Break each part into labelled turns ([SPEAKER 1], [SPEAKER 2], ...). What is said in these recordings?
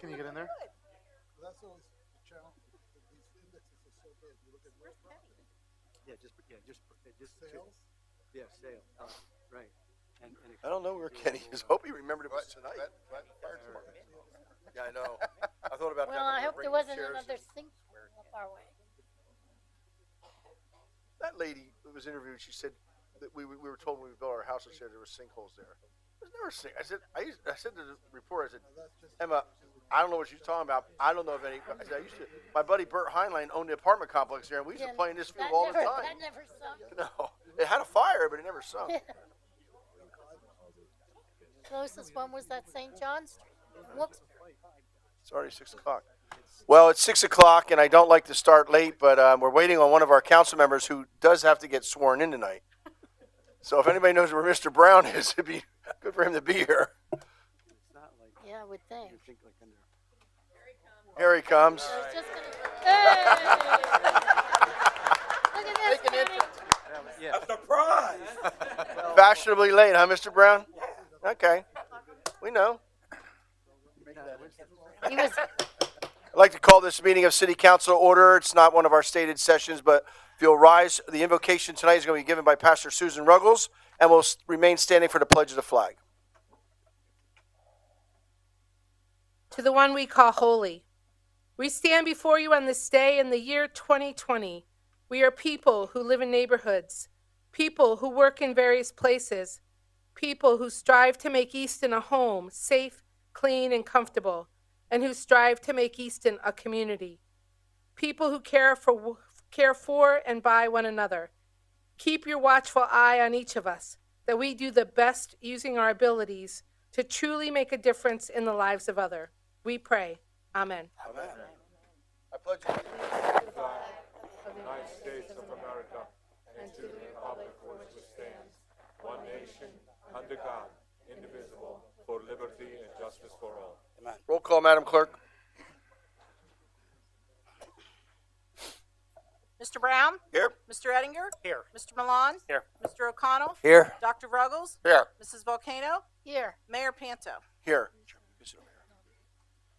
[SPEAKER 1] Can you get in there?
[SPEAKER 2] That's always the challenge, these indexes are so big, you look at real property,
[SPEAKER 3] Yeah, just, yeah, just, uh, just.
[SPEAKER 2] sales,
[SPEAKER 3] Yeah, sale, uh, right. And- and
[SPEAKER 4] I don't know where Kenny
[SPEAKER 3] expenses
[SPEAKER 4] is.
[SPEAKER 3] will, uh,
[SPEAKER 4] Hope he remembered it was tonight. Yeah, I know. I thought about that.
[SPEAKER 5] Well, I
[SPEAKER 4] when we were
[SPEAKER 5] hope there
[SPEAKER 4] bringing
[SPEAKER 5] wasn't
[SPEAKER 4] chairs.
[SPEAKER 5] another sinkhole up our way.
[SPEAKER 4] That lady that was interviewed, she said that we, we were told when we built our house this year there were sinkholes there. There's never sink. I said, I, used, I said to the reporter, I said,
[SPEAKER 2] now that's just.
[SPEAKER 4] Emma, I don't know what you're talking about. I don't know if any. I, said, I used to. My buddy Bert Heinlein owned the apartment complex there, and we used to
[SPEAKER 5] Then
[SPEAKER 4] play in this
[SPEAKER 5] that
[SPEAKER 4] field all the
[SPEAKER 5] never-
[SPEAKER 4] time.
[SPEAKER 5] That never sunk.
[SPEAKER 4] No, it had a fire, but it never sunk.
[SPEAKER 5] Closest one was that St. John Street. Whoops.
[SPEAKER 4] It's already six o'clock. Well, it's six o'clock, and I don't like to start late, but um, we're waiting on one of our council members who does have to get sworn in tonight. So if anybody knows where Mr. Brown is, it'd be good for him to be here.
[SPEAKER 3] It's not like,
[SPEAKER 5] Yeah, I would
[SPEAKER 3] you
[SPEAKER 5] think.
[SPEAKER 3] think like under,
[SPEAKER 4] Here he comes.
[SPEAKER 5] I was just gonna. Hey! Look at this morning.
[SPEAKER 3] yeah,
[SPEAKER 4] Fashionably late, huh, Mr. Brown? Okay, we know.
[SPEAKER 5] He was,
[SPEAKER 4] I'd like to call this meeting of City Council to order. It's not one of our stated sessions, but if you'll rise, the invocation tonight is going to be given by Pastor Susan Ruggles, and will s- remain standing for the pledge of the flag.
[SPEAKER 6] to the one we call holy. We stand before you on this day in the year 2020. We are people who live in neighborhoods, people who work in various places, people who strive to make Easton a home safe, clean, and comfortable, and who strive to make Easton a community. People who care for care for and by one another. Keep your watchful eye on each of us, that we do the best using our abilities to truly make a difference in the lives of other. We pray. Amen.
[SPEAKER 4] I pledge allegiance
[SPEAKER 6] And to the
[SPEAKER 7] republic for which it stands, one nation, under God, indivisible, for liberty and justice for all.
[SPEAKER 4] Roll call, Madam Clerk.
[SPEAKER 8] Mr. Brown?
[SPEAKER 4] Here.
[SPEAKER 8] Mr. Ettinger? Here. Mr. Milan? Here. Mr. O'Connell?
[SPEAKER 4] Here.
[SPEAKER 8] Dr. Ruggles?
[SPEAKER 4] Here.
[SPEAKER 8] Mrs. Volcano?
[SPEAKER 5] here,
[SPEAKER 8] Mayor Panto?
[SPEAKER 4] Here.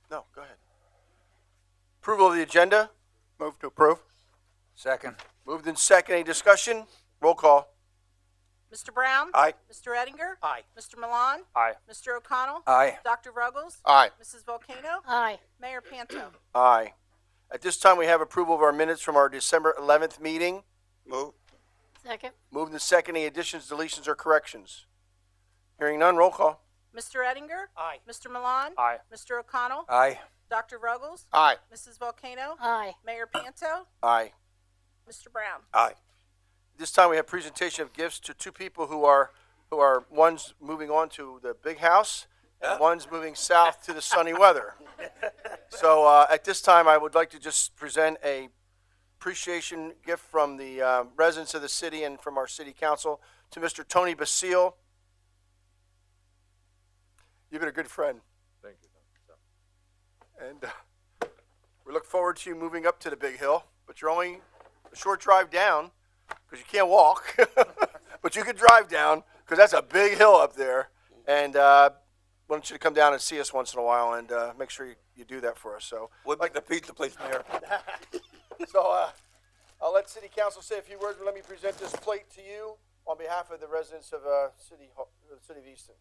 [SPEAKER 4] No, go ahead. Approval of the agenda? Move to approve.
[SPEAKER 9] Second.
[SPEAKER 4] Moved in second. Any discussion? Roll call.
[SPEAKER 8] Mr. Brown?
[SPEAKER 4] Aye.
[SPEAKER 8] Mr. Ettinger? Aye. Mr. Milan?
[SPEAKER 9] Aye.
[SPEAKER 8] Mr. O'Connell?
[SPEAKER 9] Aye.
[SPEAKER 8] Dr. Ruggles?
[SPEAKER 4] Aye.
[SPEAKER 8] Mrs. Volcano?
[SPEAKER 5] aye,
[SPEAKER 8] Mayor Panto?
[SPEAKER 4] Aye. At this time, we have approval of our minutes from our December 11th meeting.
[SPEAKER 9] Move.
[SPEAKER 5] second,
[SPEAKER 4] Moved in second. Any additions, deletions, or corrections? Hearing none, roll call.
[SPEAKER 8] Mr. Ettinger? Aye. Mr. Milan?
[SPEAKER 9] Aye.
[SPEAKER 8] Mr. O'Connell?
[SPEAKER 9] Aye.
[SPEAKER 8] Dr. Ruggles?
[SPEAKER 4] Aye.
[SPEAKER 8] Mrs. Volcano?
[SPEAKER 5] aye,
[SPEAKER 8] Mayor Panto?
[SPEAKER 4] Aye.
[SPEAKER 8] Mr. Brown?
[SPEAKER 4] Aye. This time we have presentation of gifts to two people who are, who are, one's moving on to the big house and one's moving south to the sunny weather. So, uh, at this time, I would like to just present a appreciation gift from the, uh, residents of the city and from our city council to Mr. Tony Basile. You've been a good friend
[SPEAKER 7] Thank you.
[SPEAKER 4] and, uh, we look forward to you moving up to the big hill, but you're only a short drive down because you can't walk, but you can drive down because that's a big hill up there. And uh, want you to come down and see us once in a while and uh, make sure you, you do that for us. So,
[SPEAKER 9] We'd like to pizza place, Mayor.
[SPEAKER 4] so uh, I'll let City Council say a few words. but Let me present this plate to you on behalf of the residents of uh, City Hall, the City of Easton.